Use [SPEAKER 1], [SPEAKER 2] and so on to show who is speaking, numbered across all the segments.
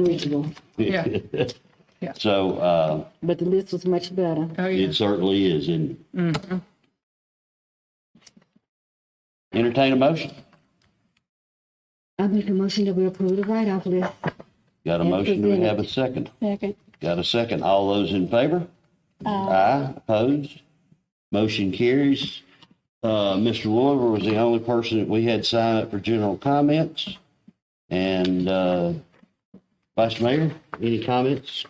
[SPEAKER 1] unreachable,
[SPEAKER 2] Yeah.
[SPEAKER 3] So uh,
[SPEAKER 1] but the list was much better.
[SPEAKER 2] Oh, yeah.
[SPEAKER 3] it certainly is. And
[SPEAKER 1] Mm-hmm.
[SPEAKER 3] entertain a motion.
[SPEAKER 1] I make a motion that we approve the write-off list.
[SPEAKER 3] Got a
[SPEAKER 1] And
[SPEAKER 3] motion. Do we
[SPEAKER 1] present it.
[SPEAKER 3] have a second?
[SPEAKER 4] Second.
[SPEAKER 3] Got a second. All those in favor?
[SPEAKER 1] Uh.
[SPEAKER 3] Aye. Opposed? Motion carries. Uh, Mr. Williver was the only person that we had sign up for general comments. And uh, Vice Mayor, any comments?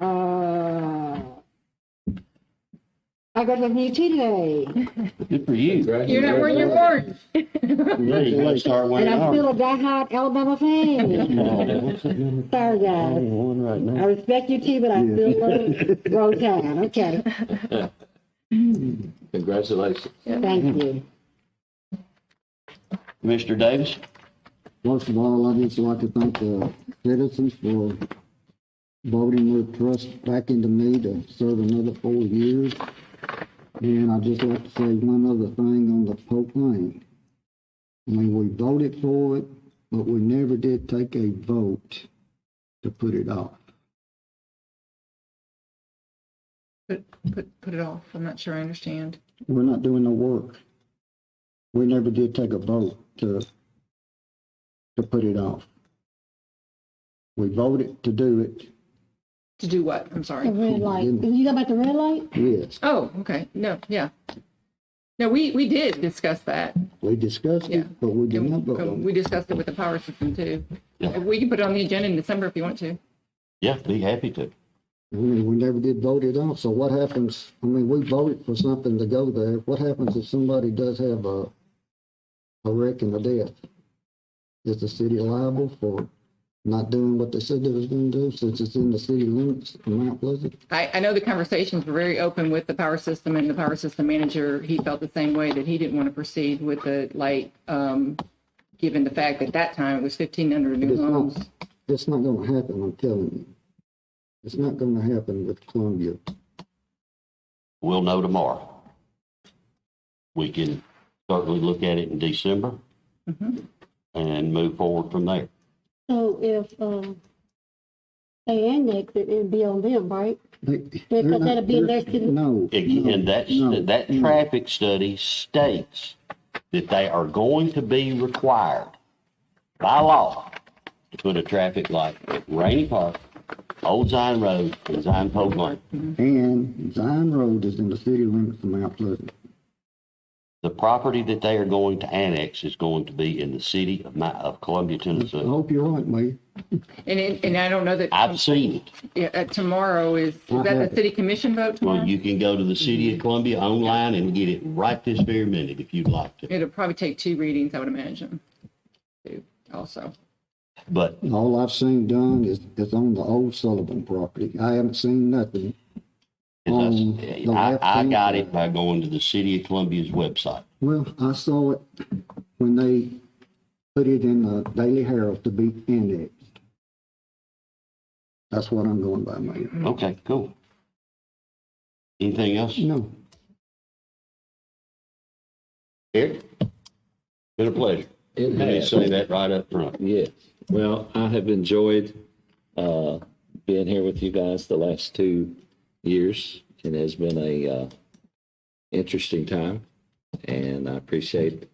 [SPEAKER 1] Uh, I got a new tea today,
[SPEAKER 3] Good for you.
[SPEAKER 2] You're not where you're born.
[SPEAKER 3] Yeah, you gotta start wearing
[SPEAKER 1] and I'm still
[SPEAKER 3] ours.
[SPEAKER 1] a die-hard Alabama fan.
[SPEAKER 3] Oh, what's that doing?
[SPEAKER 1] Sorry,
[SPEAKER 3] I'm
[SPEAKER 1] guys.
[SPEAKER 3] on right now.
[SPEAKER 1] I respect your tea, but I still love Roll Tide. Okay,
[SPEAKER 5] Congratulations.
[SPEAKER 1] thank you.
[SPEAKER 3] Mr. Davis?
[SPEAKER 6] First of all, I'd just like to thank the citizens for voting their trust back into me to serve another four years. And I'd just like to say one other thing on the Pope Lane. I mean, we voted for it, but we never did take a vote to put it off.
[SPEAKER 2] Put, put, put it off. I'm not sure I understand.
[SPEAKER 6] We're not doing no work. We never did take a vote to, to put it off. We voted to do it,
[SPEAKER 2] To do what? I'm
[SPEAKER 4] The
[SPEAKER 1] Oh,
[SPEAKER 2] sorry.
[SPEAKER 4] red light. You got about the red light?
[SPEAKER 6] yes.
[SPEAKER 2] Oh, okay. No, yeah. No, we, we did discuss that.
[SPEAKER 6] We discussed
[SPEAKER 2] Yeah.
[SPEAKER 6] it, but we did not vote
[SPEAKER 2] Um,
[SPEAKER 6] on it.
[SPEAKER 2] We discussed it with the power system too.
[SPEAKER 3] Yeah.
[SPEAKER 2] We can put it on the agenda in December if you want to.
[SPEAKER 3] Yeah, be happy to.
[SPEAKER 6] I mean, we never did vote it off, so what happens, I mean, we voted for something to go there. What happens if somebody does have a, a wreck and a death? Is the city liable for not doing what they said they was gonna do since it's in the city limits of Mount Pleasant?
[SPEAKER 2] I, I know the conversations were very open with the power system and the power system manager. He felt the same way that he didn't want to proceed with the light, um, given the fact that that time it was fifteen hundred new
[SPEAKER 6] It's
[SPEAKER 2] homes.
[SPEAKER 6] not, it's not gonna happen, I'm telling you. It's not gonna happen with Columbia.
[SPEAKER 3] We'll know tomorrow. We can certainly look at it in December and move forward from there.
[SPEAKER 4] So if, um, they annex it, it'd be on them, right?
[SPEAKER 6] They-
[SPEAKER 4] Yeah, 'cause
[SPEAKER 6] they're not-
[SPEAKER 4] that'll be
[SPEAKER 6] they're-
[SPEAKER 4] less than-
[SPEAKER 6] No. no,
[SPEAKER 3] And that's,
[SPEAKER 6] no,
[SPEAKER 3] that
[SPEAKER 6] no.
[SPEAKER 3] traffic study states that they are going to be required by law to put a traffic light at Rainy Park, Old Zion Road, and Zion Pope Lane.
[SPEAKER 6] And Zion Road is in the city limits of Mount Pleasant.
[SPEAKER 3] The property that they are going to annex is going to be in the city of my, of Columbia,
[SPEAKER 6] I
[SPEAKER 3] Tennessee.
[SPEAKER 6] hope you're right, Mayor.
[SPEAKER 2] And, it- and I don't know that,
[SPEAKER 3] I've seen it.
[SPEAKER 2] yeah, uh, tomorrow is, is that the city commission vote
[SPEAKER 3] Well,
[SPEAKER 2] tomorrow?
[SPEAKER 3] you can go to the City of Columbia online and get it right this very minute if you'd like to.
[SPEAKER 2] It'll probably take two readings, I would imagine, too, also.
[SPEAKER 3] But
[SPEAKER 6] All I've seen done is, is on the old Sullivan property. I haven't seen nothing. Um,
[SPEAKER 3] as
[SPEAKER 6] the
[SPEAKER 3] I,
[SPEAKER 6] left
[SPEAKER 3] I
[SPEAKER 6] hand-
[SPEAKER 3] got it by going to the City of Columbia's website.
[SPEAKER 6] Well, I saw it when they put it in the Daily Herald to be indexed. That's what I'm going by, Mayor.
[SPEAKER 3] Okay, cool. Anything else?
[SPEAKER 6] No,
[SPEAKER 3] Eric? Been a pleasure.
[SPEAKER 5] It
[SPEAKER 3] Let me
[SPEAKER 5] has.
[SPEAKER 3] say that right up front.
[SPEAKER 5] Yes. Well, I have enjoyed uh, being here with you guys the last two years. It has been a uh, interesting time, and I appreciate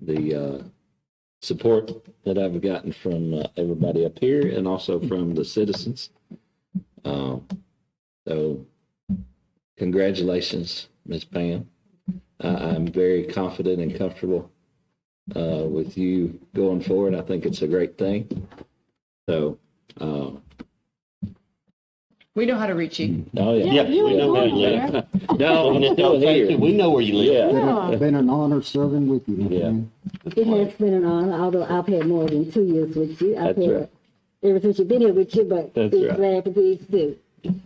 [SPEAKER 5] the uh, support that I've gotten from uh, everybody up here and also from the citizens. Uh, so, congratulations, Ms. Pam. I I'm very confident and comfortable uh, with you going forward. I think it's a great thing. So, uh,
[SPEAKER 2] We know how to reach you.
[SPEAKER 5] oh yeah,
[SPEAKER 4] Yeah, you
[SPEAKER 3] we know
[SPEAKER 4] were
[SPEAKER 3] where you
[SPEAKER 4] born
[SPEAKER 3] live.
[SPEAKER 4] there.
[SPEAKER 5] no,
[SPEAKER 3] Don't
[SPEAKER 5] I'm still
[SPEAKER 3] think that
[SPEAKER 5] here.
[SPEAKER 3] We know where you live.
[SPEAKER 5] Yeah,
[SPEAKER 4] Yeah.
[SPEAKER 6] it's been an honor serving with you, my
[SPEAKER 5] Yeah.
[SPEAKER 6] friend.
[SPEAKER 1] It has been an honor, although I've had more than two years with you. I've
[SPEAKER 5] That's
[SPEAKER 1] had
[SPEAKER 5] right.
[SPEAKER 1] ever since you've been here with you, but
[SPEAKER 5] That's
[SPEAKER 1] it's
[SPEAKER 5] right.
[SPEAKER 1] glad to be too.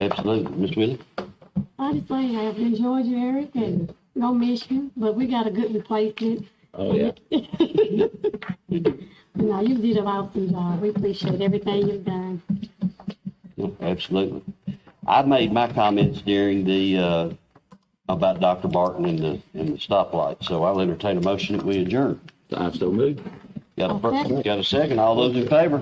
[SPEAKER 3] Absolutely. Miss Willie?
[SPEAKER 4] Honestly, I've enjoyed you, Eric, and don't miss you, but we got a good replacement.
[SPEAKER 5] oh yeah.
[SPEAKER 4] No, uh, you did an awesome job. We appreciate everything you've done.
[SPEAKER 3] Yeah, Absolutely. I made my comments during the, uh, about Dr. Barton and the, and the stoplight, so I'll entertain a motion that we adjourn.
[SPEAKER 5] I'm so moved.
[SPEAKER 3] Got a,
[SPEAKER 4] Okay.
[SPEAKER 3] fir- got a second? All those in favor?